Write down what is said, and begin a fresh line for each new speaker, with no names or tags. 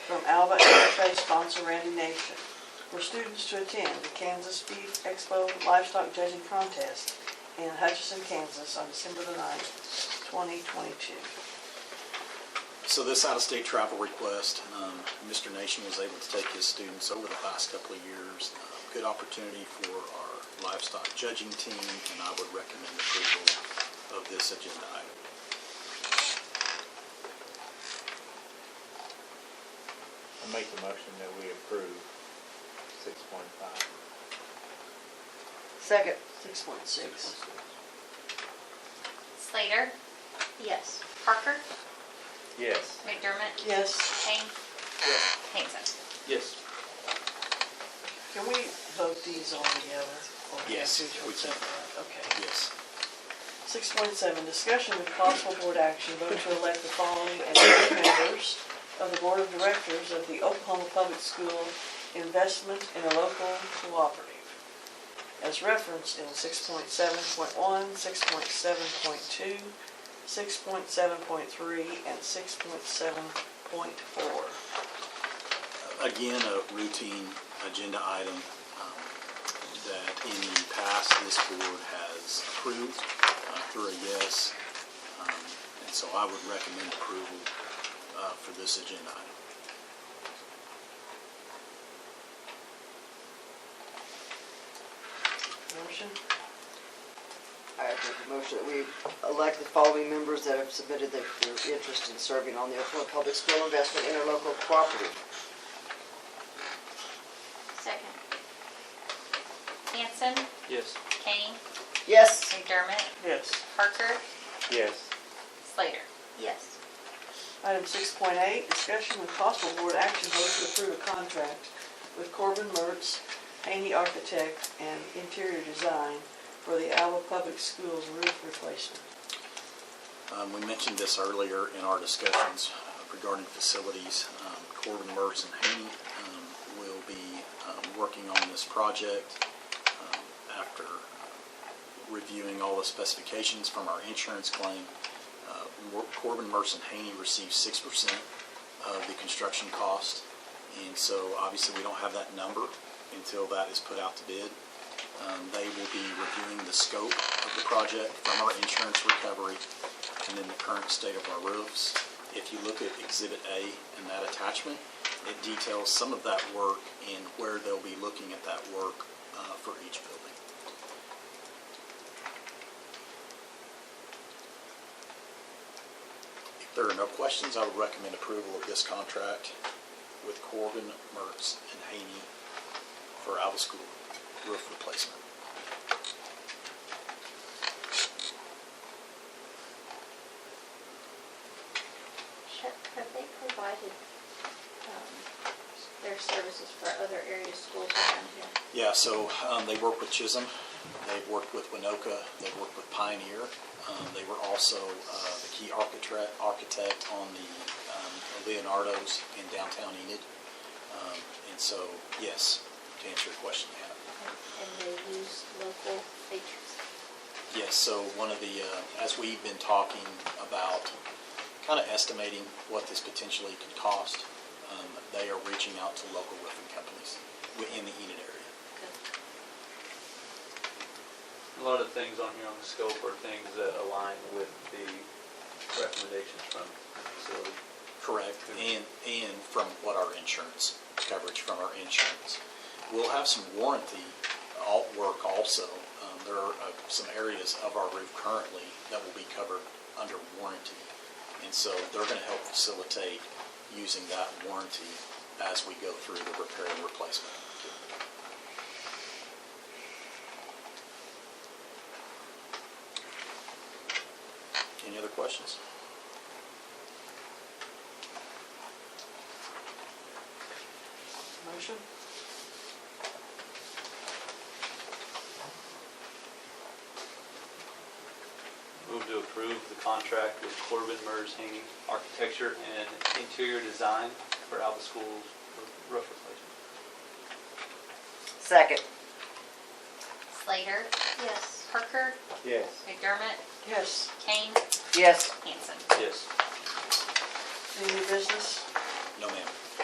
from Alba FFA sponsor Randy Nation for students to attend the Kansas Beef Expo Livestock Judging Contest in Hutchinson, Kansas on December the 9th, 2022.
So this out-of-state travel request, um, Mr. Nation was able to take his students over the past couple of years. Uh, Good opportunity for our livestock judging team, and I would recommend approval of this agenda item.
I make the motion that we approve six point five.
Second. 6.6.
Slater? Yes. Parker?
Yes.
McDermott?
Yes.
Kane? Hanson?
Yes.
Can we vote these all together? or do we
Yes,
have to do
we can.
separate? Okay.
Yes.
Six point seven, discussion with possible board action, vote to elect the following as board members of the Board of Directors of the Oklahoma Public School Investment in a Local Cooperative, as referenced in 6.7.1, 6.7.2, 6.7.3, 6.7.4, 6.7.5, 6.7.6, 6.7.7, 6.7.8, 6.7.9, 6.7.10, 6.7.11, 6.7.12, 6.7.13, 6.7.14, 6.7.15, 6.7.16, 6.7.17, 6.7.18, 6.7.19, 6.7.20, 6.7.21, 6.7.22, 6.7.23, 6.7.24, 6.7.25, 6.7.26, 6.7.27, 6.7.28, 6.7.29, 6.7.30, 6.7.31, 6.7.32, 6.7.33, 6.7.34, 6.7.35, 6.7.36, 6.7.37, 6.7.38, 6.7.39, 6.7.40, 6.7.41, 6.7.42, 6.7.43, 6.7.44, 6.7.45, 6.7.46, 6.7.47, 6.7.48, 6.7.49, 6.7.50, 6.7.51, 6.7.52, 6.7.53, 6.7.54, 6.7.55, and six point seven point four.
Again, a routine agenda item um, that in the past, this board has approved uh, through a yes. Um, And so I would recommend approval uh, for this agenda item.
Motion?
I make a motion that we elect the following members that have submitted their their interest in serving on the Oklahoma Public School Investment Interlocal Cooperative.
Second. Hanson,
yes,
Kane,
Yes.
McDermott,
Yes.
Parker,
Yes,
Slater. Yes.
Item six point eight, discussion with possible board action vote to approve a contract with Corbin Mertz, Haney Architect and Interior Design for the Alba Public Schools roof replacement.
Um, We mentioned this earlier in our discussions regarding facilities. Um, Corbin Mertz and Haney um, will be um, working on this project um, after uh, reviewing all the specifications from our insurance claim. Uh, Mor- Corbin Mertz and Haney received 6% of the construction cost, and so obviously we don't have that number until that is put out to bid. Um, They will be reviewing the scope of the project from our insurance recovery and then the current state of our roofs. If you look at Exhibit A and that attachment, it details some of that work and where they'll be looking at that work uh, for each building. If there are no questions, I would recommend approval of this contract with Corbin, Mertz, and Haney for Alva School roof replacement.
Have they provided um, their services for other area schools around here?
Yeah, so um, they work with Chisholm, they've worked with Winoka, they've worked with Pioneer. Um, They were also uh, the key architect, architect on the um, Leonardo's in downtown Enid. Um, And so, yes, to answer your question, yeah.
And they use local features?
Yes, so one of the, uh, as we've been talking about, kind of estimating what this potentially could cost, um, they are reaching out to local roofing companies within the Enid area.
Good.
a lot of things on here on the scope are things that align with the recommendations from the facility.
Correct, and, and from what our insurance, coverage from our insurance. We'll have some warranty al- work also. Um, There are uh, some areas of our roof currently that will be covered under warranty. And so they're going to help facilitate using that warranty as we go through the repair and replacement. Any other questions?
Motion?
Move to approve the contract with Corbin Mers Hanging Architecture and Interior Design for Alba School's roof replacement.
Second.
Slater? Yes. Parker,
yes.
McDermott,
Yes.
Kane,
Yes.
Hanson.
Yes.
Any new business?
No, ma'am.